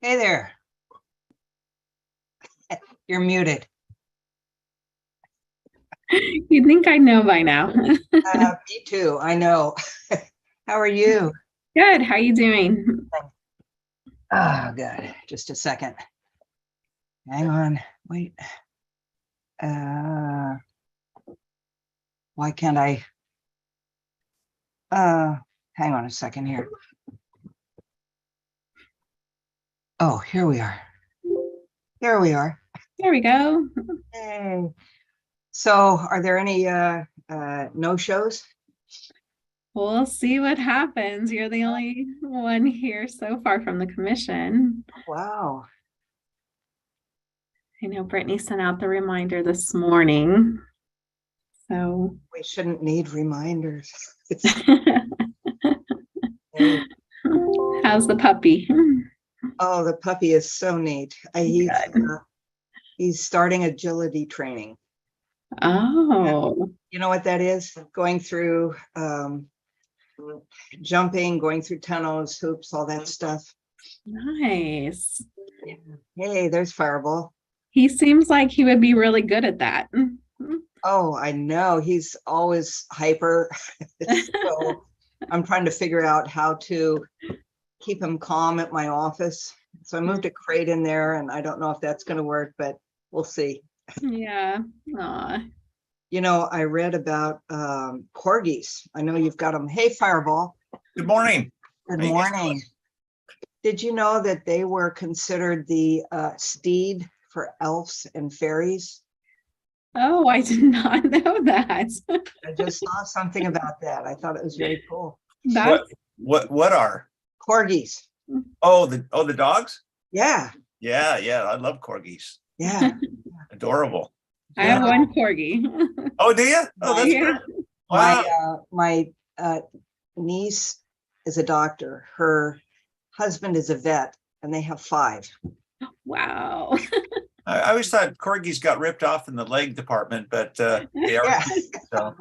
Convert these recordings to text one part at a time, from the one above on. Hey there. You're muted. You'd think I know by now. Uh, Me too, I know. How are you? Good. How you doing? Oh, good. Just a second. Hang on, wait. Uh, Why can't I? Uh, hang on a second here. Oh, here we are. Here we are. There we go. Yay. So are there any uh, uh, no-shows? We'll see what happens. You're the only one here so far from the commission. Wow, I know Brittany sent out the reminder this morning. So we shouldn't need reminders. how's the puppy? Oh, the puppy is so neat. I- He's, uh, he's starting agility training. Oh, You know what that is? Going through um, jumping, going through tunnels, hoops, all that stuff. nice. Hey, there's Fireball. He seems like he would be really good at that. Oh, I know. He's always hyper. So I'm trying to figure out how to keep him calm at my office. So I moved a crate in there and I don't know if that's going to work, but we'll see. Yeah. Aw. You know, I read about um, corgis. I know you've got them. Hey, Fireball. Good morning. Good How you guys morning. Did you know that they were considered the uh, steed for elves and fairies? Oh, I did not know that. I just saw something about that. I thought it was very cool. That's What what are? Corgis. Oh, the oh the dogs? Yeah. Yeah, yeah. I love corgis. Yeah. Adorable. I have Yeah. one corgi. Oh, do you? Oh, that's Yeah. great. My, Wow. uh, my, uh, niece is a doctor. Her husband is a vet and they have five. Wow. I, I always thought corgis got ripped off in the leg department, but uh, they are. Yeah. so.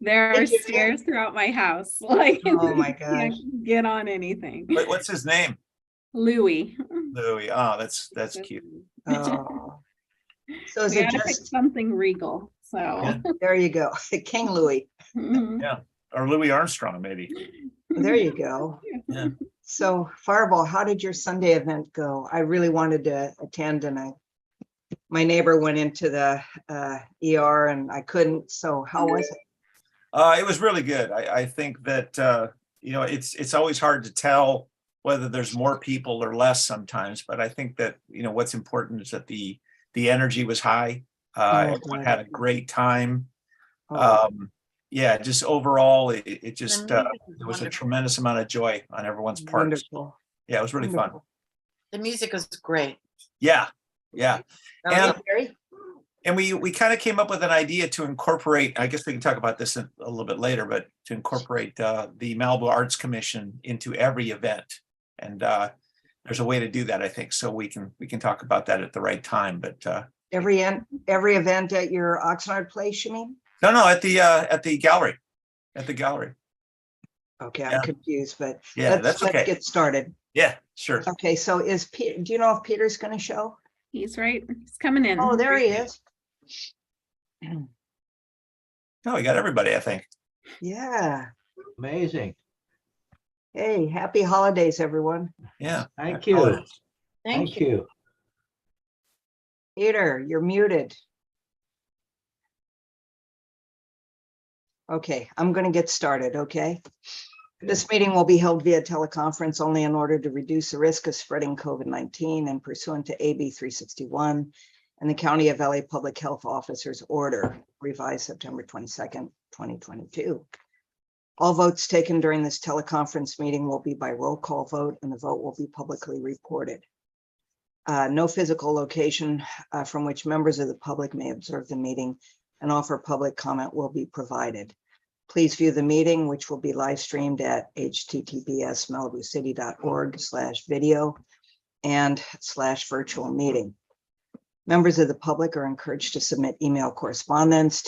There Thank are you, Jen. stairs throughout my house. Like Oh, my you can't Get on anything. Wait, what's his name? Louis. Louis. Oh, that's that's cute. Oh. So is We it gotta pick just, something regal, so. there you go, King Louis, mhm. Or Louis Armstrong, maybe. there you go. Yeah. So Fireball, how did your Sunday event go? I really wanted to attend and I, my neighbor went into the, uh, ER and I couldn't, so how was it? Uh, it was really good. I, I think that uh, you know it's it's always hard to tell whether there's more people or less sometimes, but I think that you know what's important is that the the energy was high. Uh, Oh, everyone good. had a great time. Oh, Um, yeah, just overall, it, it it just The uh, music was there was a wonderful. tremendous amount of joy on everyone's part. Oh, Wonderful. Yeah, it was really fun. wonderful. The music was great. Yeah, yeah. Oh, That was- And- And we, we kind of came up with an idea to incorporate, I guess we can talk about this in- a little bit later, but to incorporate uh, the Malibu Arts Commission into every event. And uh, there's a way to do that, I think. So we can, we can talk about that at the right time, but uh, Every, en- every event at your Oxnard place, you mean? no, no, at the, uh, at the gallery, at the gallery. Okay, I'm Yeah. confused, but Yeah, let's, that's let's okay. get started. Yeah, sure. Okay, so is Peter, do you know if Peter's gonna show? He's right, he's coming in. Oh, there he is. No, we got everybody, I think. Yeah. Amazing. Hey, happy holidays, everyone. Yeah. Thank Oh, you. Thank you. Peter, you're muted. Okay, I'm gonna get started, okay? This meeting will be held via teleconference only in order to reduce the risk of spreading COVID-19 and pursuant to AB 361 and the County of LA Public Health Officer's Order revised September 22nd, 2022. All votes taken during this teleconference meeting will be by roll call vote and the vote will be publicly reported. Uh, No physical location uh, from which members of the public may observe the meeting and offer public comment will be provided. Please view the meeting, which will be live streamed at https malibucity.org slash video and slash virtual meeting. Members of the public are encouraged to submit email correspondence